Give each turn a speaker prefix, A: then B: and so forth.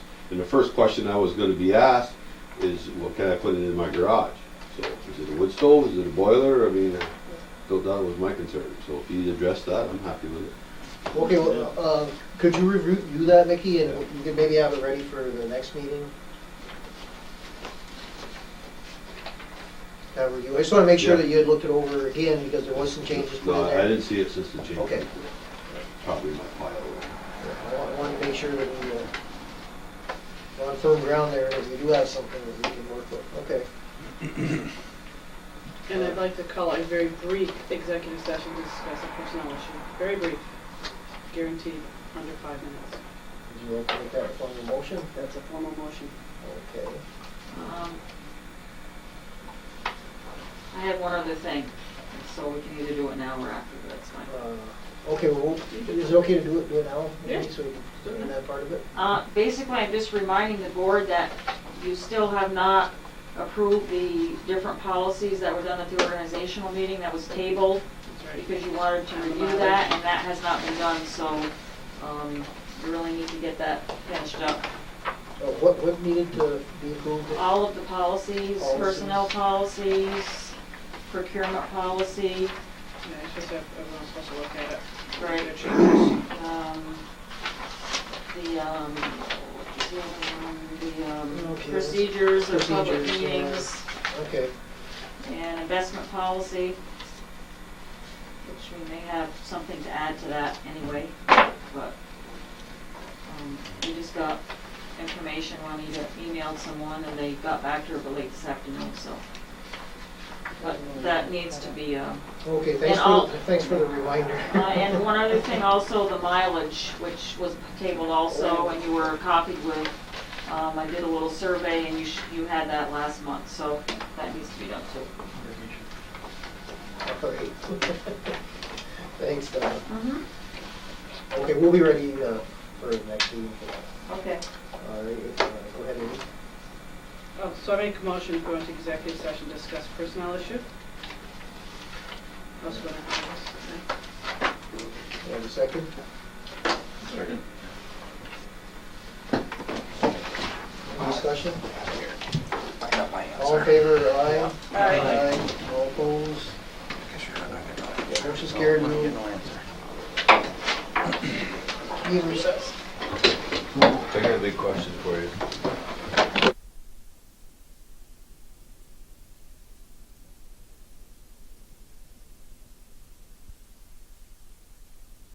A: And the first question I was gonna be asked is, well, can I put it in my garage? So, is it a wood stove, is it a boiler, I mean, I thought that was my concern, so if he addressed that, I'm happy with it.
B: Okay, well, uh, could you review that, Mickey, and you could maybe have it ready for the next meeting? Have review, I just wanna make sure that you had looked it over again, because there was some changes put in
A: No,
B: there.
A: I didn't see it since the change.
B: Okay.
A: Probably in my file.
B: I wa- I wanted to make sure that we, uh, we're on firm ground there, and we do have something that we can work with, okay?
C: And I'd like to call a very brief executive session to discuss a personnel issue. Very brief, guaranteed, under five minutes.
B: Would you like to make that a formal motion?
C: That's a formal motion.
B: Okay.
D: Um, I have one other thing, so we can either do it now or after, but that's fine.
B: Uh, Okay, well, is it okay to do it, do it now? maybe,
C: Yeah.
B: So we
C: Do it
B: can, in
C: now.
B: that part of it?
D: Uh, Basically, I'm just reminding the board that you still have not approved the different policies that were done at the organizational meeting that was tabled
C: That's right.
D: because you wanted to review that, and that has not been done, so um, you really need to get that finished up.
B: Uh, What, what needed to be approved?
D: All of the policies, personnel policies, procurement policy,
C: Yeah, it's just that everyone's supposed to look at it.
D: Right.
C: Their changes.
D: um, the, um, what's the other one? the um,
B: Okay.
D: procedures of public
B: Procedures, yeah.
D: meetings
B: Okay,
D: and investment policy, which we may have something to add to that anyway, but um, we just got information, Juanita emailed someone and they got back to her late this afternoon, so. But that needs to be, um,
B: okay, thanks
D: all-
B: for, thanks for the reminder.
D: Uh, And one other thing also, the mileage, which was tabled also, and you were copied with, um, I did a little survey and you, sh- you had that last month, so that needs to be done too.
B: All right. Thanks, Donna.
D: Mm-hmm.
B: Okay, we'll be ready uh, for the next meeting for that.
D: Okay.
B: All right, if, uh, go ahead, Amy.
C: Oh, so I make a motion to go into executive session, to discuss personnel issue. Who's gonna have this?
B: You have a second? Any Discussion?
E: I got my answer.
B: All in favor, aye?
C: Aye.
B: All opposed?
E: Guess you're not gonna get no
B: Yeah,
E: answer.
B: Motion scared
E: Wouldn't
B: me.
E: get no answer.
B: Meeting recessed.
A: I got a big question for you.